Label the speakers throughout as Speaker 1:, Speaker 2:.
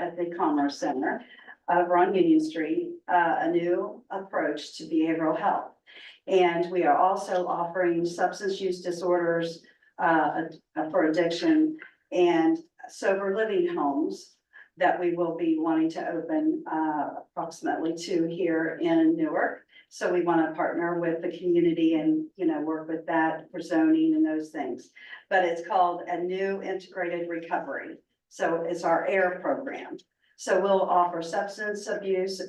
Speaker 1: at the Commerce Center over on Union Street, uh, a new approach to behavioral health. And we are also offering substance use disorders, uh, for addiction and sober living homes that we will be wanting to open, uh, approximately two here in Newark. So we want to partner with the community and, you know, work with that for zoning and those things. But it's called a new integrated recovery. So it's our AIR program. So we'll offer substance abuse,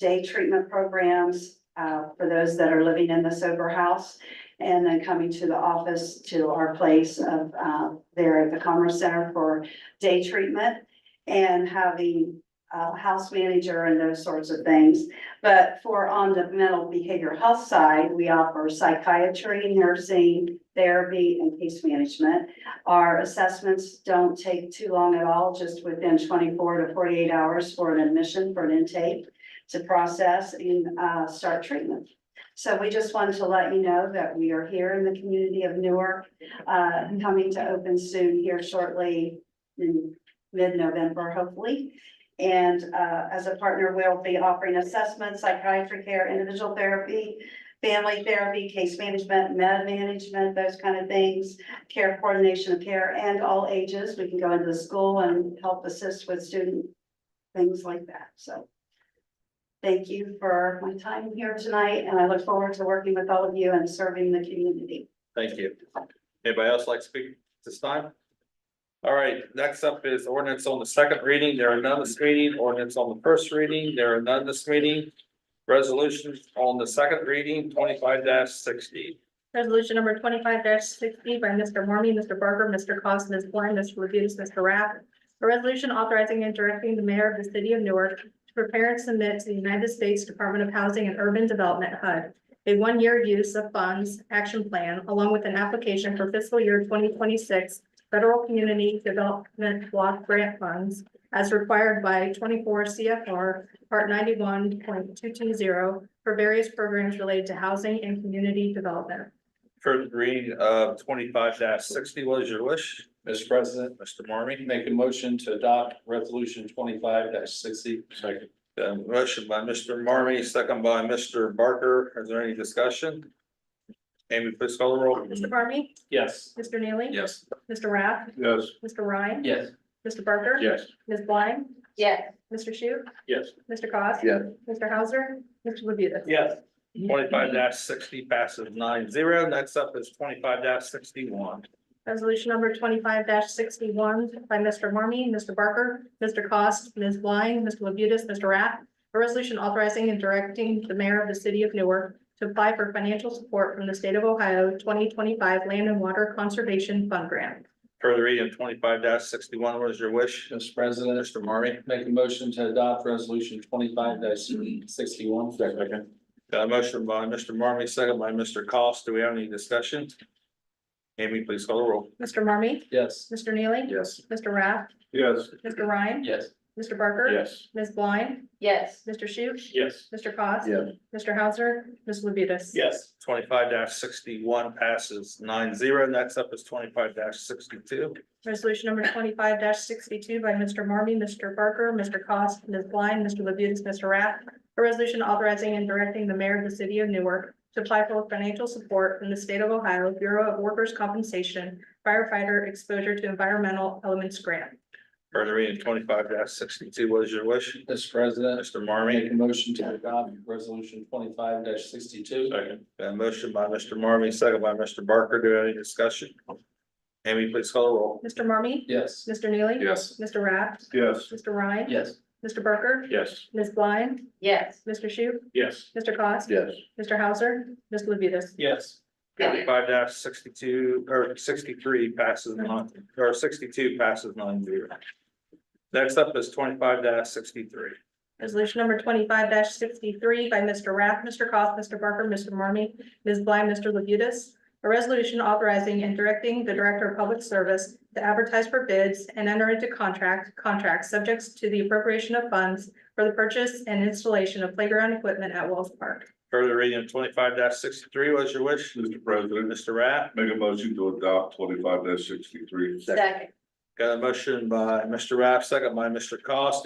Speaker 1: day treatment programs, uh, for those that are living in the sober house. And then coming to the office, to our place of, uh, there at the Commerce Center for day treatment. And having, uh, house manager and those sorts of things. But for on the mental behavioral health side, we offer psychiatry, nursing, therapy, and case management. Our assessments don't take too long at all, just within twenty-four to forty-eight hours for an admission, for an intake to process and uh, start treatment. So we just wanted to let you know that we are here in the community of Newark, uh, coming to open soon here shortly in mid-November, hopefully. And uh, as a partner, we'll be offering assessment, psychiatry care, individual therapy, family therapy, case management, med management, those kind of things, care coordination of care and all ages. We can go into the school and help assist with student things like that. So thank you for my time here tonight, and I look forward to working with all of you and serving the community.
Speaker 2: Thank you. Anybody else like to speak this time? All right, next up is ordinance on the second reading. There are none this meeting. Ordinance on the first reading. There are none this meeting. Resolutions on the second reading, twenty-five sixty.
Speaker 3: Resolution number twenty-five sixty by Mr. Marmy, Mr. Barker, Mr. Cost, Ms. Blind, Mr. Labutus, Mr. Rath. A resolution authorizing and directing the mayor of the city of Newark to prepare and submit to the United States Department of Housing and Urban Development HUD a one-year use of funds action plan along with an application for fiscal year twenty twenty-six federal community development block grant funds as required by twenty-four CFR part ninety-one point two-two-zero for various programs related to housing and community development.
Speaker 2: First reading of twenty-five sixty. What is your wish,
Speaker 4: Mr. President,
Speaker 2: Mr. Marmy?
Speaker 4: make a motion to adopt resolution twenty-five sixty. Second.
Speaker 2: Uh, motion by Mr. Marmy, second by Mr. Barker. Is there any discussion? Amy, please call the roll.
Speaker 3: Mr. Barney,
Speaker 4: Yes.
Speaker 3: Mr. Neely.
Speaker 4: Yes.
Speaker 3: Mr. Rath,
Speaker 4: Yes.
Speaker 3: Mr. Ryan.
Speaker 4: Yes.
Speaker 3: Mr. Barker.
Speaker 4: Yes.
Speaker 3: Ms. Blind,
Speaker 1: Yes.
Speaker 3: Mr. Shu,
Speaker 4: Yes.
Speaker 3: Mr. Cos.
Speaker 4: Yes.
Speaker 3: Mr. Hauser, Mr. Labutus.
Speaker 4: Yes.
Speaker 2: Twenty-five sixty passes nine zero. Next up is twenty-five sixty-one.
Speaker 3: Resolution number twenty-five sixty-one by Mr. Marmy, Mr. Barker, Mr. Cost, Ms. Blind, Mr. Labutus, Mr. Rath. A resolution authorizing and directing the mayor of the city of Newark to apply for financial support from the state of Ohio twenty twenty-five Land and Water Conservation Fund Grant.
Speaker 2: Further reading twenty-five sixty-one, what is your wish?
Speaker 4: Mr. President. Mr. Marmy. Make a motion to adopt resolution twenty-five sixty-one. Second.
Speaker 2: Got a motion by Mr. Marmy, second by Mr. Cost. Do we have any discussion? Amy, please call the roll.
Speaker 3: Mr. Marmy,
Speaker 4: Yes.
Speaker 3: Mr. Neely.
Speaker 4: Yes.
Speaker 3: Mr. Rath,
Speaker 4: Yes.
Speaker 3: Mr. Ryan.
Speaker 4: Yes.
Speaker 3: Mr. Barker.
Speaker 4: Yes.
Speaker 3: Ms. Blind,
Speaker 1: Yes.
Speaker 3: Mr. Shu,
Speaker 4: Yes.
Speaker 3: Mr. Cos.
Speaker 4: Yeah.
Speaker 3: Mr. Hauser, Ms. Labutus.
Speaker 4: Yes.
Speaker 2: Twenty-five sixty-one passes nine zero. Next up is twenty-five sixty-two.
Speaker 3: Resolution number twenty-five sixty-two by Mr. Marmy, Mr. Barker, Mr. Cos, Ms. Blind, Mr. Labutus, Mr. Rath. A resolution authorizing and directing the mayor of the city of Newark to apply for financial support from the state of Ohio Bureau of Workers' Compensation firefighter exposure to environmental elements grant.
Speaker 2: Further reading twenty-five sixty-two, what is your wish?
Speaker 4: Mr. President.
Speaker 2: Mr.
Speaker 4: Make
Speaker 2: Marmy,
Speaker 4: a motion to adopt resolution twenty-five sixty-two.
Speaker 2: Second. got a motion by Mr. Marmy, second by Mr. Barker. Do we have any discussion? Amy, please call the roll.
Speaker 3: Mr. Marmy,
Speaker 4: Yes.
Speaker 3: Mr. Neely.
Speaker 4: Yes.
Speaker 3: Mr. Rath,
Speaker 4: Yes.
Speaker 3: Mr. Ryan.
Speaker 4: Yes.
Speaker 3: Mr. Barker,
Speaker 4: Yes.
Speaker 3: Ms. Blind,
Speaker 1: Yes.
Speaker 3: Mr. Shu,
Speaker 4: Yes.
Speaker 3: Mr. Cos.
Speaker 4: Yes.
Speaker 3: Mr. Hauser, Ms. Labutus.
Speaker 4: Yes.
Speaker 2: Five sixty-two, or sixty-three passes nine, or sixty-two passes nine zero. Next up is twenty-five sixty-three.
Speaker 3: Resolution number twenty-five sixty-three by Mr. Rath, Mr. Cos, Mr. Barker, Mr. Marmy, Ms. Blind, Mr. Labutus. A resolution authorizing and directing the Director of Public Service to advertise for bids and enter into contract, contracts subjects to the appropriation of funds for the purchase and installation of playground equipment at Wells Park.
Speaker 2: Further reading of twenty-five sixty-three, what is your wish?
Speaker 5: Mr. President,
Speaker 2: Mr. Rath,
Speaker 5: make a motion to adopt twenty-five sixty-three.
Speaker 1: Second.
Speaker 2: got a motion by Mr. Rath, second by Mr. Cost.